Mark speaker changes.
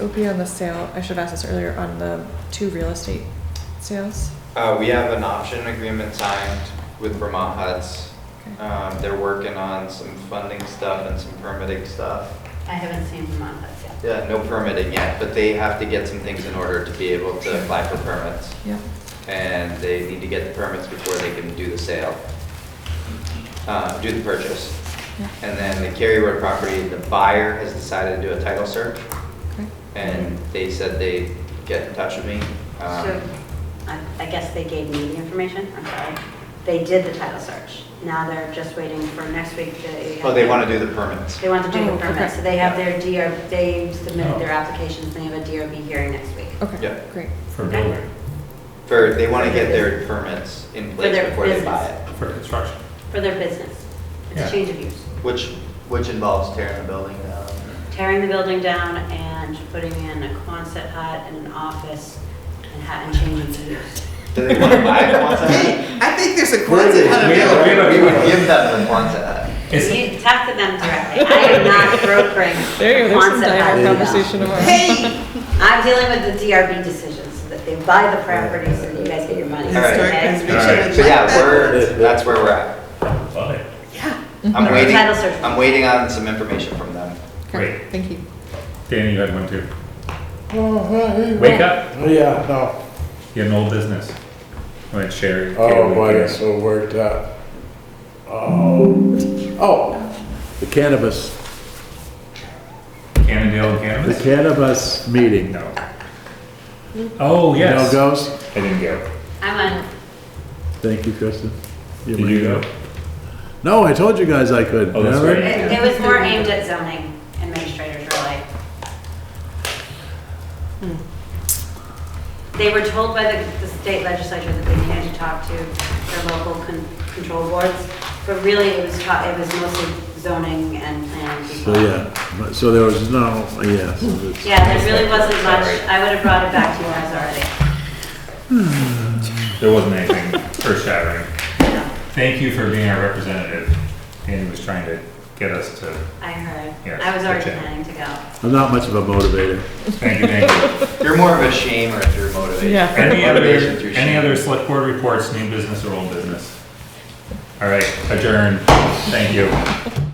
Speaker 1: It would be on the sale, I should have asked this earlier, on the two real estate sales.
Speaker 2: Uh, we have an option agreement signed with Vermont Huts.
Speaker 1: Okay.
Speaker 2: Um, they're working on some funding stuff and some permitting stuff.
Speaker 3: I haven't seen Vermont Huts yet.
Speaker 2: Yeah, no permitting yet, but they have to get some things in order to be able to apply for permits.
Speaker 1: Yeah,
Speaker 2: And they need to get the permits before they can do the sale, uh, do the purchase.
Speaker 1: yeah,
Speaker 2: And then the Cary Road property, the buyer has decided to do a title search,
Speaker 1: okay.
Speaker 2: and they said they'd get in touch with me. Um,
Speaker 3: So I I guess they gave me the information, I'm sorry. They did the title search. Now they're just waiting for next week to.
Speaker 2: Oh, they want to do the permits.
Speaker 3: They want to do
Speaker 1: Oh,
Speaker 3: the
Speaker 1: okay. Oh.
Speaker 3: permit, so they have their DR, they submitted their applications, they have a DRB hearing next week.
Speaker 2: Yeah.
Speaker 1: Okay, great.
Speaker 4: For building,
Speaker 2: For, they want to get their permits in place
Speaker 3: their
Speaker 2: before they
Speaker 3: business.
Speaker 2: buy it,
Speaker 4: for construction.
Speaker 3: For their business. It's
Speaker 4: Yeah.
Speaker 3: a change of use.
Speaker 2: which, which involves tearing the building down.
Speaker 3: Tearing the building down and putting in a Quonset hut and an office and ha- and changing the use.
Speaker 2: Do they want to buy a Quonset?
Speaker 5: I think there's a
Speaker 2: Where
Speaker 5: Quonset hut
Speaker 4: we have- we have
Speaker 2: available?
Speaker 4: a-
Speaker 2: We would give them the Quonset hut.
Speaker 4: It's,
Speaker 3: You talk to them directly. I am not brokering a
Speaker 1: There you go, there's some
Speaker 3: Quonset hut
Speaker 1: direct
Speaker 3: deal.
Speaker 1: conversation tomorrow.
Speaker 5: Hey,
Speaker 3: I'm dealing with the DRB decisions, so that they buy the property so that you guys get your money,
Speaker 2: All right.
Speaker 5: historic
Speaker 3: okay?
Speaker 5: preservation.
Speaker 4: All right.
Speaker 5: I
Speaker 2: So
Speaker 5: like
Speaker 2: yeah,
Speaker 5: that.
Speaker 2: we're, that's where we're at.
Speaker 4: love it.
Speaker 5: Yeah.
Speaker 3: Mm-hmm.
Speaker 2: I'm waiting,
Speaker 3: Title search.
Speaker 2: I'm waiting on some information from them.
Speaker 1: Okay,
Speaker 4: Great.
Speaker 1: thank you.
Speaker 4: Danny, you had one too.
Speaker 6: Oh,
Speaker 4: Wake up,
Speaker 6: Yeah, no.
Speaker 4: you had an old business. When Sherry.
Speaker 6: Oh, boy, it's so worked up. Oh, oh, the cannabis,
Speaker 4: Cannondale
Speaker 6: the
Speaker 4: Cannabis?
Speaker 6: cannabis meeting.
Speaker 4: No. Oh,
Speaker 6: You know
Speaker 4: yes.
Speaker 6: goes?
Speaker 4: I didn't go.
Speaker 3: I'm on,
Speaker 6: Thank you, Kristen.
Speaker 4: Did you go?
Speaker 6: No, I told you guys I could.
Speaker 4: Oh, that's
Speaker 6: remember?
Speaker 3: it
Speaker 4: right.
Speaker 3: it was more aimed at zoning administrators, really. They were told by the, the state legislature that they needed to talk to their local con- control boards, but really it was taught, it was mostly zoning and planning people.
Speaker 6: So, yeah, but- so there was no, yeah. so it's-
Speaker 3: Yeah, there really wasn't much, I would have brought it back to you guys already.
Speaker 4: There wasn't anything earth shattering.
Speaker 3: No,
Speaker 4: Thank you for being our representative. Danny was trying to get us to,
Speaker 3: I heard,
Speaker 4: Yes,
Speaker 3: I was already
Speaker 4: okay.
Speaker 3: planning to go.
Speaker 6: I'm not much of a motivator.
Speaker 4: thank you, thank you.
Speaker 2: You're more of a shamer through motivation.
Speaker 1: Yeah.
Speaker 4: Any other,
Speaker 2: Motivation through
Speaker 4: any
Speaker 2: shame.
Speaker 4: other select board reports, new business or old business? All right, adjourned. Thank you.